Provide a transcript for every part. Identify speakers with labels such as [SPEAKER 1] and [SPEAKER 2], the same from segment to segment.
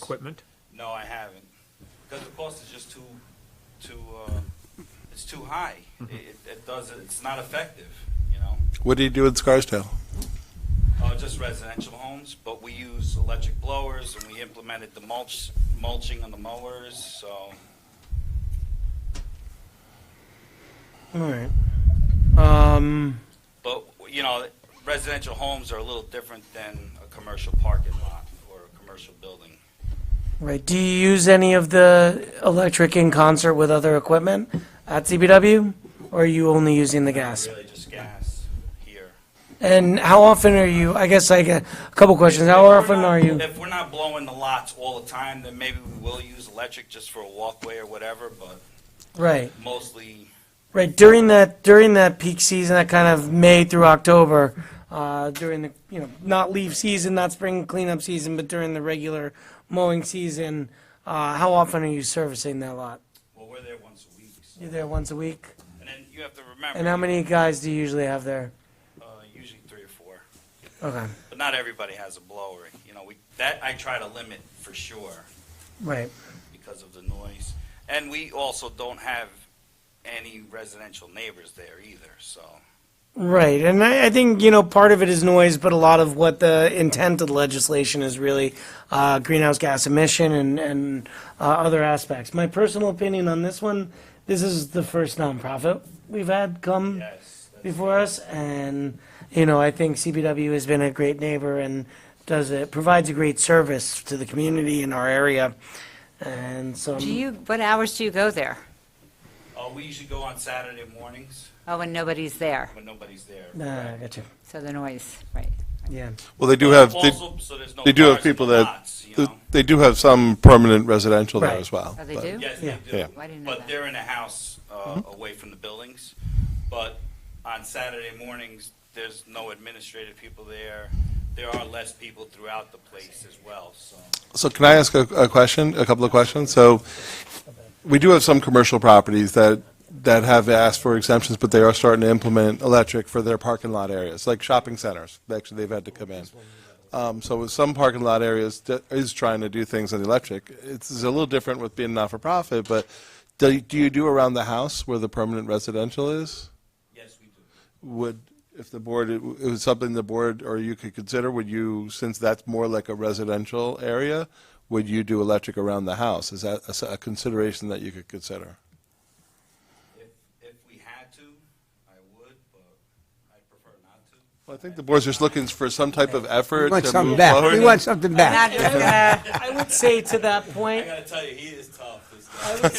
[SPEAKER 1] equipment?
[SPEAKER 2] No, I haven't, because the cost is just too, too, uh, it's too high.
[SPEAKER 3] Mm-hmm.
[SPEAKER 2] It, it- it doesn't, it's not effective, you know?
[SPEAKER 4] What do you do in Scarsdale?
[SPEAKER 2] Uh, just residential homes, but we use electric blowers, and we implemented the mulch, mulching on the mowers, so,
[SPEAKER 3] All right. Um,
[SPEAKER 2] but, you know, residential homes are a little different than a commercial parking lot or a commercial building.
[SPEAKER 3] right. Do you use any of the electric in concert with other equipment at CBW? Or are you only using the gas?
[SPEAKER 2] Really just gas here.
[SPEAKER 3] And how often are you, I guess I get a couple questions. How
[SPEAKER 2] If we're
[SPEAKER 3] often
[SPEAKER 2] not-
[SPEAKER 3] are you?
[SPEAKER 2] If we're not blowing the lots all the time, then maybe we will use electric just for a walkway or whatever, but
[SPEAKER 3] Right,
[SPEAKER 2] mostly
[SPEAKER 3] right. During that, during that peak season, that kind of May through October, uh, during the, you know, not leaf season, not spring cleanup season, but during the regular mowing season, uh, how often are you servicing that lot?
[SPEAKER 2] Well, we're there once a week. So.
[SPEAKER 3] You're there once a week?
[SPEAKER 2] And then you have to remember.
[SPEAKER 3] And how many guys do you usually have there?
[SPEAKER 2] Uh, usually three or four.
[SPEAKER 3] Okay,
[SPEAKER 2] But not everybody has a blower. You know, we that I try to limit for sure
[SPEAKER 3] right.
[SPEAKER 2] because of the noise. And we also don't have any residential neighbors there either. So
[SPEAKER 3] Right, and I, I think you know part of it is noise, but a lot of what the intent of the legislation is really uh, greenhouse gas emission and and uh, other aspects. My personal opinion on this one: this is the first nonprofit we've had come
[SPEAKER 2] yes, that's-
[SPEAKER 3] before us, and you know I think CBW has been a great neighbor and does it provides a great service to the community in our area, and so
[SPEAKER 5] Do you, what hours do you go there?
[SPEAKER 2] uh, we usually go on Saturday mornings
[SPEAKER 5] Oh, when nobody's there,
[SPEAKER 2] when nobody's there.
[SPEAKER 3] uh, I got you.
[SPEAKER 5] so the noise, right.
[SPEAKER 3] Yeah.
[SPEAKER 4] Well, they do have they,
[SPEAKER 2] also, so there's no
[SPEAKER 4] they do have
[SPEAKER 2] cars in
[SPEAKER 4] people
[SPEAKER 2] the
[SPEAKER 4] that
[SPEAKER 2] lots, you know?
[SPEAKER 4] they do have some permanent residential there
[SPEAKER 3] Right.
[SPEAKER 4] as well.
[SPEAKER 5] Oh, they
[SPEAKER 4] but-
[SPEAKER 5] do?
[SPEAKER 2] Yes,
[SPEAKER 3] Yeah.
[SPEAKER 2] they do.
[SPEAKER 4] Yeah.
[SPEAKER 5] Why didn't know
[SPEAKER 2] But
[SPEAKER 5] that?
[SPEAKER 2] they're in a house uh, away from the buildings. But on Saturday mornings, there's no administrative people there. There are less people throughout the place as well. So
[SPEAKER 4] So can I ask a, a question, a couple of questions? So we do have some commercial properties that, that have asked for exemptions, but they are starting to implement electric for their parking lot areas, like shopping centers. Actually, they've had to come in. Um, so with some parking lot areas that is trying to do things on electric. It's, it's a little different with being not-for-profit, but do, do you do around the house where the permanent residential is?
[SPEAKER 2] yes, we do.
[SPEAKER 4] would, if the board, it was something the board or you could consider, would you, since that's more like a residential area, would you do electric around the house? Is that a s- a consideration that you could consider?
[SPEAKER 2] If if we had to, I would, but I prefer not to.
[SPEAKER 4] Well, I think the board's just looking for some type of effort
[SPEAKER 6] We want
[SPEAKER 4] to
[SPEAKER 6] something
[SPEAKER 4] move
[SPEAKER 6] back. We
[SPEAKER 4] forward.
[SPEAKER 6] want something
[SPEAKER 5] Not
[SPEAKER 6] back.
[SPEAKER 5] just, uh,
[SPEAKER 3] I would say to that
[SPEAKER 2] I
[SPEAKER 3] point,
[SPEAKER 2] gotta tell you, he is tough. This guy.
[SPEAKER 3] I would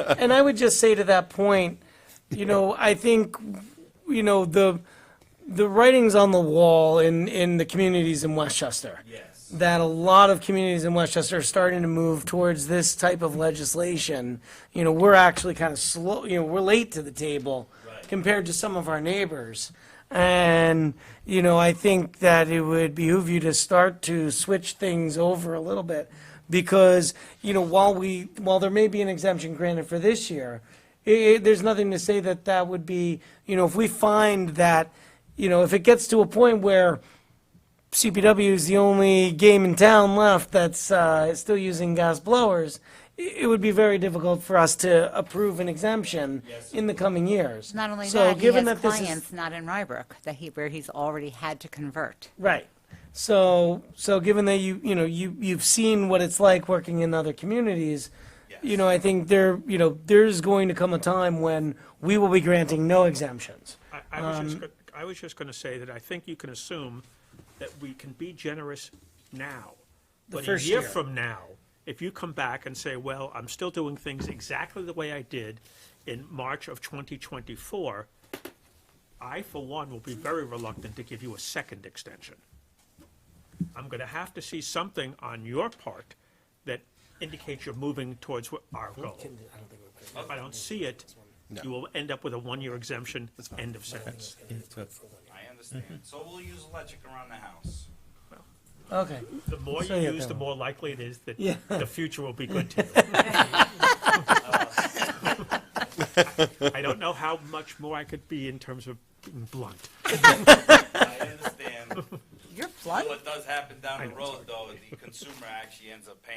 [SPEAKER 3] say- and I would just say to that point, you know, I think, you know, the the writing's on the wall in in the communities in Westchester
[SPEAKER 2] Yes.
[SPEAKER 3] that a lot of communities in Westchester are starting to move towards this type of legislation. You know, we're actually kind of slow, you know, we're late to the table
[SPEAKER 2] Right.
[SPEAKER 3] compared to some of our neighbors. And, you know, I think that it would behoove you to start to switch things over a little bit because, you know, while we, while there may be an exemption granted for this year, i i there's nothing to say that that would be, you know, if we find that, you know, if it gets to a point where CPW is the only game in town left that's uh, still using gas blowers, i- it would be very difficult for us to approve an exemption in the coming years.
[SPEAKER 5] not only
[SPEAKER 3] So
[SPEAKER 5] that, he
[SPEAKER 3] given
[SPEAKER 5] has
[SPEAKER 3] that this is-
[SPEAKER 5] clients not in Rybrook, that he, where he's already had to convert.
[SPEAKER 3] Right. So, so given that you, you know, you, you've seen what it's like working in other communities, you know, I think there, you know, there's going to come a time when we will be granting no exemptions.
[SPEAKER 1] I- I was
[SPEAKER 3] Um,
[SPEAKER 1] just, go- I was just going to say that I think you can assume that we can be generous now. But a
[SPEAKER 3] first
[SPEAKER 1] year
[SPEAKER 3] year.
[SPEAKER 1] from now, if you come back and say, well, I'm still doing things exactly the way I did in March of 2024, I, for one, will be very reluctant to give you a second extension. I'm going to have to see something on your part that indicates you're moving towards what our goal. If I don't see it, you will end up with a one-year exemption, end of sentence.
[SPEAKER 2] I understand. So we'll use electric around the house.
[SPEAKER 3] Okay.
[SPEAKER 1] The more you
[SPEAKER 3] Say it
[SPEAKER 1] use,
[SPEAKER 3] that
[SPEAKER 1] the
[SPEAKER 3] way.
[SPEAKER 1] more likely it is that
[SPEAKER 3] Yeah.
[SPEAKER 1] the future will be good to you. I don't know how much more I could be in terms of being blunt.
[SPEAKER 2] I understand.
[SPEAKER 5] You're flood?
[SPEAKER 2] What does happen down
[SPEAKER 1] I
[SPEAKER 2] the
[SPEAKER 1] know, it's
[SPEAKER 2] road, though, the consumer actually ends up paying